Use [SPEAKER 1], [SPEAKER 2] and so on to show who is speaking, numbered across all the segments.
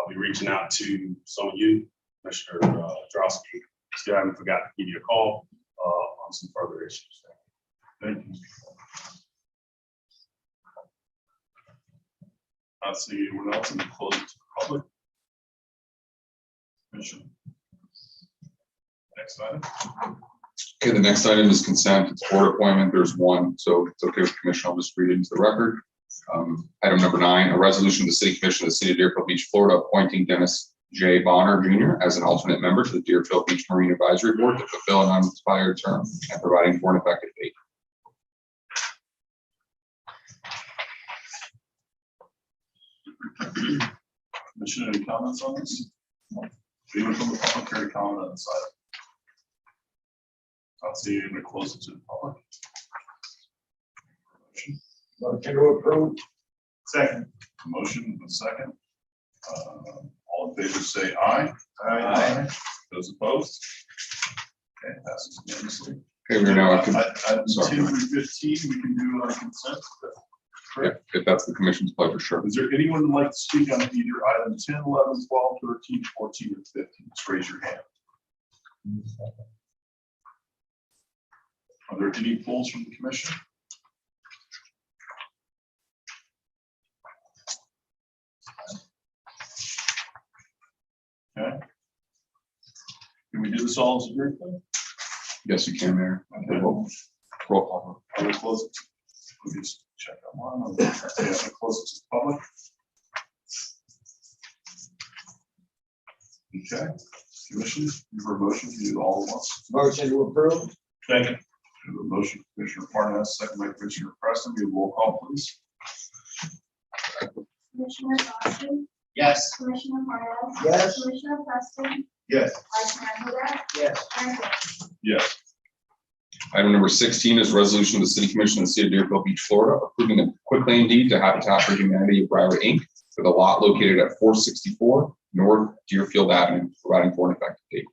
[SPEAKER 1] I'll be reaching out to some of you, Commissioner uh, Drosky. Still haven't forgotten to give you a call uh, on some further issues. Thank you. I see anyone else in the closing to the public. Commissioner. Next item.
[SPEAKER 2] Okay, the next item is consent. It's board appointment. There's one, so if it's okay with the commission. I'll just read it into the record. Um, Item number nine, a resolution of the city commission of the city of Deerfield Beach, Florida, appointing Dennis J. Bonner Jr. as an alternate member to the Deerfield Beach Marine Advisory Board to fulfill an unexpired term and providing for an effective date.
[SPEAKER 1] Commissioner, any comments on this? Anyone from the public care to comment on this item? I'll see anyone close it to the public.
[SPEAKER 3] Motion to approve.
[SPEAKER 1] Second. Motion and second. Uh, All in favor, say aye. Those opposed? Okay, passes unanimously.
[SPEAKER 2] Okay, we're now, at con-
[SPEAKER 1] I- Item
[SPEAKER 2] Sorry.
[SPEAKER 1] two and fifteen, we can do on consent.
[SPEAKER 2] yeah, if that's the commission's pleasure, sure.
[SPEAKER 1] Is there anyone who'd like to speak on either item 10, 11, 12, 13, 14, or fifteen? Just raise your hand. Are there any polls from the commission? Okay. Can we do this all as a group? then?
[SPEAKER 2] Yes, you can, Mayor.
[SPEAKER 1] Okay.
[SPEAKER 2] Roll roll call.
[SPEAKER 1] I will close. it. We'll just check that one. I'll- yeah, I'll Close it to the public. Okay, commission, your motion, you do all at once.
[SPEAKER 3] Motion to approve.
[SPEAKER 1] Second. The motion, Commissioner Parnas, second by Commissioner Preston, we will call please.
[SPEAKER 4] Commissioner Boston,
[SPEAKER 1] Yes.
[SPEAKER 4] Commissioner Morales.
[SPEAKER 3] Yes.
[SPEAKER 4] Commissioner Preston,
[SPEAKER 1] Yes.
[SPEAKER 4] Vice Mayor Huda,
[SPEAKER 3] Yes.
[SPEAKER 4] Mayor Hill.
[SPEAKER 1] Yes.
[SPEAKER 2] Item number sixteen is resolution of the city commission of the city of Deerfield Beach, Florida, approving a quick lane deed to Habitat for Humanity of Broward Inc. for the lot located at four sixty-four North Deerfield Avenue, providing for an effective date.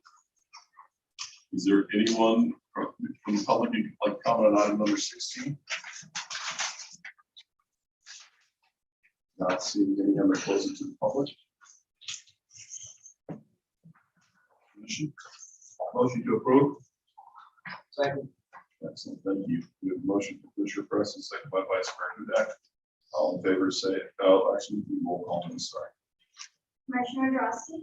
[SPEAKER 1] Is there anyone from from the public who'd like to comment on item number sixteen? Not seeing any other closing to the public. Commission? Motion to approve.
[SPEAKER 3] Second.
[SPEAKER 1] Excellent, thank you. We have a motion for Commissioner Preston, second by Vice Mayor Hudak. All in favor, say, oh, actually, we will call them, sorry.
[SPEAKER 4] Commissioner Drosky,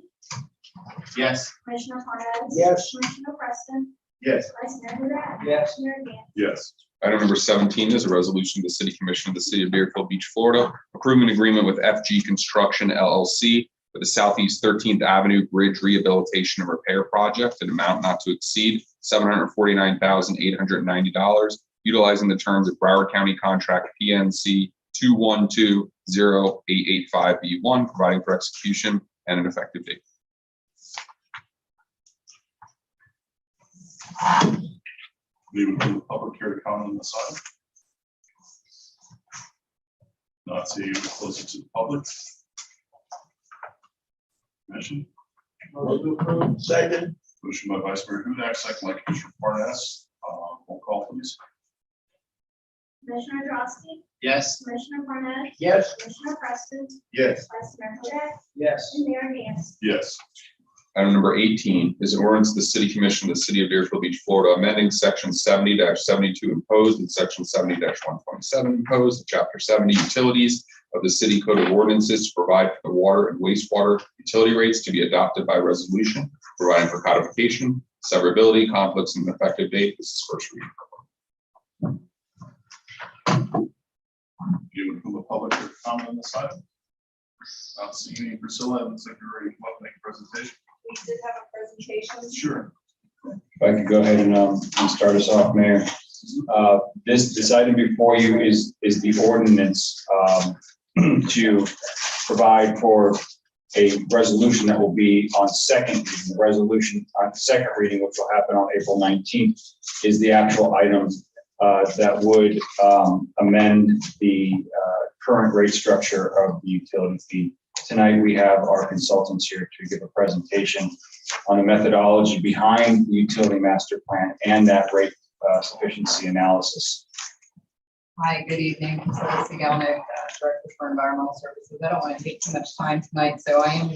[SPEAKER 1] Yes.
[SPEAKER 4] Commissioner Morales.
[SPEAKER 3] Yes.
[SPEAKER 4] Commissioner Preston,
[SPEAKER 1] Yes.
[SPEAKER 4] Vice Mayor Huda.
[SPEAKER 3] Yes.
[SPEAKER 4] Mayor Dan.
[SPEAKER 1] Yes.
[SPEAKER 2] Item number seventeen is a resolution of the City Commission of the City of Deerfield Beach, Florida, approving an agreement with FG Construction LLC for the Southeast Thirteenth Avenue Bridge Rehabilitation and Repair Project, an amount not to exceed seven hundred forty-nine thousand eight hundred ninety dollars, utilizing the terms of Broward County Contract PNC two one two zero eight eight five B one, providing for execution and an effective date.
[SPEAKER 1] We would move public here to comment on this item. Not seeing it closer to the public. Commission,
[SPEAKER 3] Motion to approve. Second.
[SPEAKER 1] motion by Vice Mayor Hudak, second by Commissioner Parnas. Uh, Roll call please.
[SPEAKER 4] Commissioner Drosky,
[SPEAKER 3] Yes.
[SPEAKER 4] Commissioner Morales,
[SPEAKER 3] Yes.
[SPEAKER 4] Commissioner Preston,
[SPEAKER 1] Yes.
[SPEAKER 4] Vice Mayor Huda,
[SPEAKER 3] Yes.
[SPEAKER 4] and Mayor Dan.
[SPEAKER 1] Yes.
[SPEAKER 2] Item number eighteen is an ordinance of the City Commission of the City of Deerfield Beach, Florida, amending section seventy seventy-two imposed and section seventy one twenty-seven imposed, of chapter seventy utilities of the City Code of Ordinances to provide for the water and wastewater utility rates to be adopted by resolution, providing for codification, severability, conflicts, and effective date. This is first reading.
[SPEAKER 1] You would move a public here to comment on this item. Not seeing any Priscilla, and Secretary, what make a presentation?
[SPEAKER 5] We did have a presentation.
[SPEAKER 1] Sure.
[SPEAKER 6] If I could go ahead and, um, and start us off, Mayor. Uh, this, this item before you is, is the ordinance, um, to provide for a resolution that will be on second, reading. the resolution on second reading, which will happen on April nineteenth, is the actual item, uh, that would, um, amend the, uh, current rate structure of the utility fee. Tonight, we have our consultants here to give a presentation on the methodology behind the utility master plan and that rate uh, sufficiency analysis.
[SPEAKER 7] Hi, good evening. Celeste Galnick, uh, Director for Environmental Services. I don't want to take too much time tonight, so I am